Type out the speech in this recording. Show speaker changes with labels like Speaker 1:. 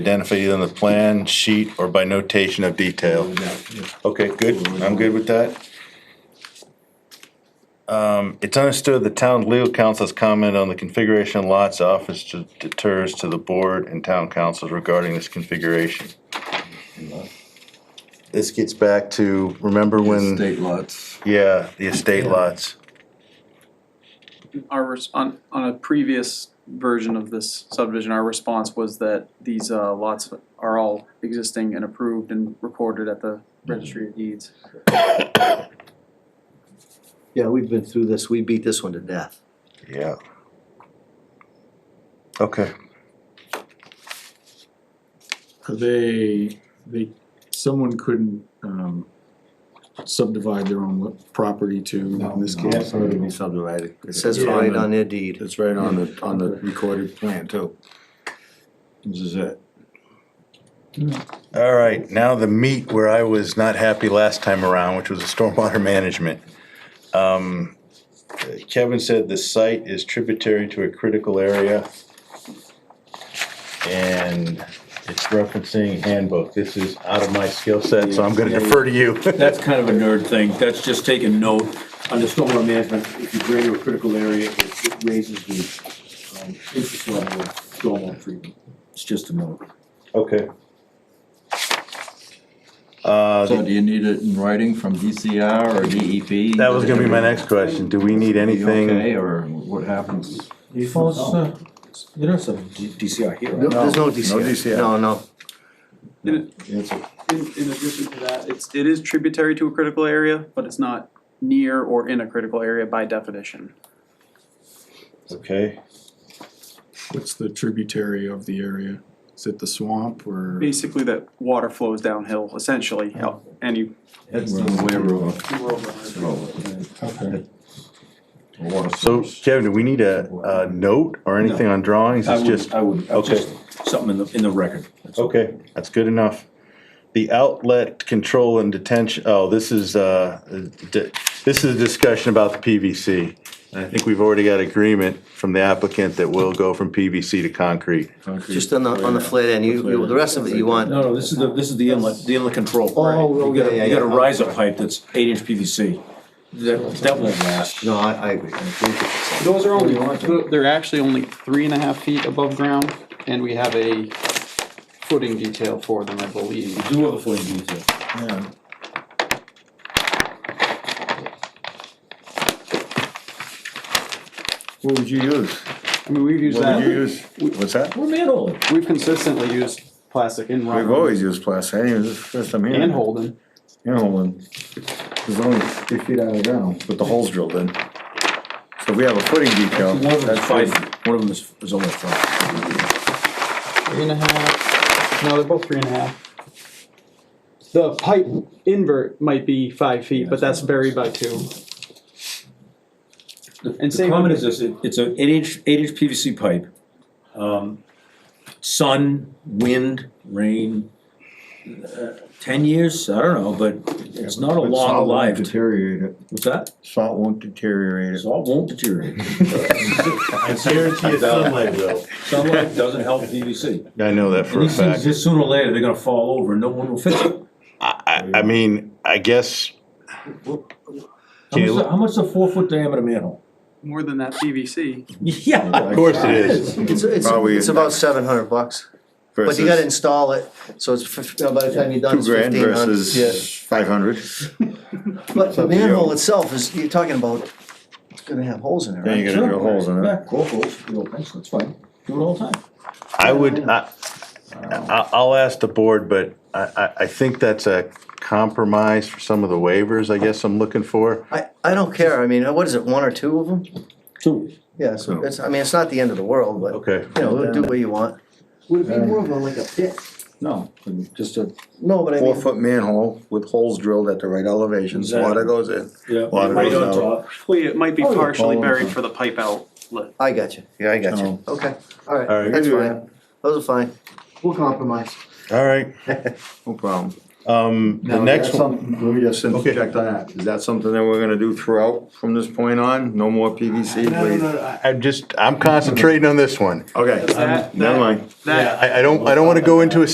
Speaker 1: identified either on the plan, sheet, or by notation of detail. Okay, good, I'm good with that. Um, it's understood the town legal counsel's comment on the configuration of lots office to- deters to the board and town councils regarding this configuration. This gets back to, remember when,
Speaker 2: State lots.
Speaker 1: yeah, the estate lots,
Speaker 3: our, res- on, on a previous version of this subdivision, our response was that these uh, lots are all existing and approved and recorded at the registry of deeds.
Speaker 4: Yeah, we've been through this, we beat this one to death.
Speaker 1: yeah. Okay,
Speaker 5: they, they, someone couldn't, um, subdivide their own lo- property to, in this case.
Speaker 2: Already be subdivided.
Speaker 4: It says right on their deed.
Speaker 2: It's right on the, on the recorded plan too. This is it.
Speaker 1: all right, now the meat where I was not happy last time around, which was the stormwater management. Um, Kevin said the site is tributary to a critical area. And it's referencing handbook, this is out of my skill set, so I'm gonna defer to you.
Speaker 6: That's kind of a nerd thing, that's just taking note.
Speaker 7: Under stormwater management, if you bring to a critical area, it it raises the um, interest level of stormwater treatment.
Speaker 6: It's just a note.
Speaker 1: Okay. Uh,
Speaker 2: So do you need it in writing from DCR or E DEP?
Speaker 1: that was gonna be my next question, do we need
Speaker 2: Okay,
Speaker 1: anything?
Speaker 2: or what happens? uh,
Speaker 7: You don't have DCR here,
Speaker 4: No, There's no DCR.
Speaker 2: no DCR.
Speaker 4: No, no.
Speaker 3: In, in addition to that, it's, it is tributary to a critical area, but it's not near or in a critical area by definition.
Speaker 1: Okay,
Speaker 5: What's the tributary of the area? Is it the swamp or?
Speaker 3: Basically, that water flows downhill essentially, and you.
Speaker 2: That's the way we're.
Speaker 5: Okay.
Speaker 2: Water
Speaker 1: so
Speaker 2: source.
Speaker 1: Kevin, do we need a, a note or anything on drawings,
Speaker 6: I
Speaker 1: it's
Speaker 6: would,
Speaker 1: just?
Speaker 6: I would, I would
Speaker 1: okay.
Speaker 6: just, something in the, in the record. That's all.
Speaker 1: Okay, that's good enough. The outlet control and detention, oh, this is, uh, di- this is a discussion about the PVC. And I think we've already got agreement from the applicant that we'll go from PVC to concrete.
Speaker 2: Concrete.
Speaker 4: Just on the, on the flat end, you, you, the rest of it you want.
Speaker 6: No, no, this is the, this is the inlet, the inlet control.
Speaker 4: Oh,
Speaker 6: You got a-
Speaker 4: yeah, yeah,
Speaker 6: You got a
Speaker 4: yeah.
Speaker 6: riser pipe that's eight inch PVC. That, that won't last.
Speaker 4: No, I, I agree. I agree with
Speaker 3: Those are only, they're actually only three and a half feet above ground, and we have a footing detail for them, I believe.
Speaker 6: Do have a footing detail.
Speaker 5: Yeah.
Speaker 2: What would you use?
Speaker 3: I mean, we've used
Speaker 2: What would you
Speaker 3: that,
Speaker 2: use? What's that?
Speaker 6: We're manholing.
Speaker 3: we've consistently used plastic in
Speaker 2: We've
Speaker 3: Rutland
Speaker 2: always used plastic, I didn't, this is the first time hearing.
Speaker 3: and
Speaker 2: it.
Speaker 3: Holden.
Speaker 2: You know, and it's only three feet out of the ground with the holes drilled in. So if we have a footing detail,
Speaker 6: One of them
Speaker 2: that's
Speaker 6: is five,
Speaker 2: five.
Speaker 6: feet. one of them is, is only five.
Speaker 3: Three and a half, no, they're both three and a half. The pipe invert might be five feet, but that's buried by two. And
Speaker 6: The
Speaker 3: same,
Speaker 6: comment is this, it- it's an eight inch, eight inch PVC pipe. Um, Sun, wind, rain, uh, ten years, I don't know, but it's not a
Speaker 2: But salt won't
Speaker 6: long lived.
Speaker 2: Deteriorate it,
Speaker 6: What's that?
Speaker 2: salt won't deteriorate it.
Speaker 6: Salt won't deteriorate.
Speaker 1: I guarantee it's sunlight will.
Speaker 6: Sunlight doesn't help PVC.
Speaker 1: I know that for a
Speaker 6: These things,
Speaker 1: fact.
Speaker 6: just sooner or later, they're gonna fall over and no one will fix it.
Speaker 1: I, I mean, I guess,
Speaker 6: How much, is a- how much is a four foot diameter manhole?
Speaker 3: more than that PVC.
Speaker 6: Yeah.
Speaker 1: of course it is.
Speaker 4: you. It's, it's,
Speaker 2: Probably-
Speaker 4: it's about seven hundred bucks, but you gotta install it, so it's, fif- you know, by the time you're done,
Speaker 2: Two
Speaker 4: it's
Speaker 2: grand
Speaker 4: fifteen hundred.
Speaker 2: versus five hundred.
Speaker 4: But the
Speaker 2: up to you.
Speaker 4: manhole itself is, you're talking about, it's gonna have holes in it,
Speaker 2: Then
Speaker 4: right?
Speaker 2: you gotta drill holes in it.
Speaker 6: Yeah, Core holes, drill holes, that's fine. Do it all the time.
Speaker 1: I would, I, I- I'll ask the board, but I, I, I think that's a compromise for some of the waivers, I guess I'm looking for.
Speaker 4: I, I don't care, I mean, what is it, one or two of them?
Speaker 6: Two.
Speaker 4: Yeah, so it's, I mean, it's not the end of the world, but,
Speaker 1: Okay.
Speaker 4: you know, do what you want.
Speaker 7: Would it be more of a, like a pit?
Speaker 2: No, just a
Speaker 4: No, but I
Speaker 2: four
Speaker 4: mean,
Speaker 2: foot manhole with holes drilled at the right elevations, water goes in.
Speaker 6: Yeah.
Speaker 2: Water
Speaker 6: Right
Speaker 2: goes
Speaker 6: on
Speaker 2: out.
Speaker 6: top.
Speaker 3: Hopefully, it might be
Speaker 2: Oh, yeah,
Speaker 3: partially
Speaker 2: Holden.
Speaker 3: buried for the pipe outlet.
Speaker 4: I got you,
Speaker 1: Yeah, I got
Speaker 2: you.
Speaker 4: okay,
Speaker 1: All right.
Speaker 4: alright, that's fine, those are fine.
Speaker 7: We'll compromise.
Speaker 1: All right,
Speaker 2: No problem.
Speaker 1: Um, the
Speaker 7: Now,
Speaker 1: next
Speaker 7: that's
Speaker 1: one,
Speaker 7: something- Let me just
Speaker 1: Okay.
Speaker 7: interject on that.
Speaker 2: Is that something that we're gonna do throughout from this point on? No more PVC,
Speaker 1: No, no,
Speaker 2: please?
Speaker 1: no, I- I'm just, I'm concentrating on this one.
Speaker 2: Okay,
Speaker 3: That-
Speaker 2: never mind.
Speaker 3: That,
Speaker 1: I, I don't, I don't wanna go into a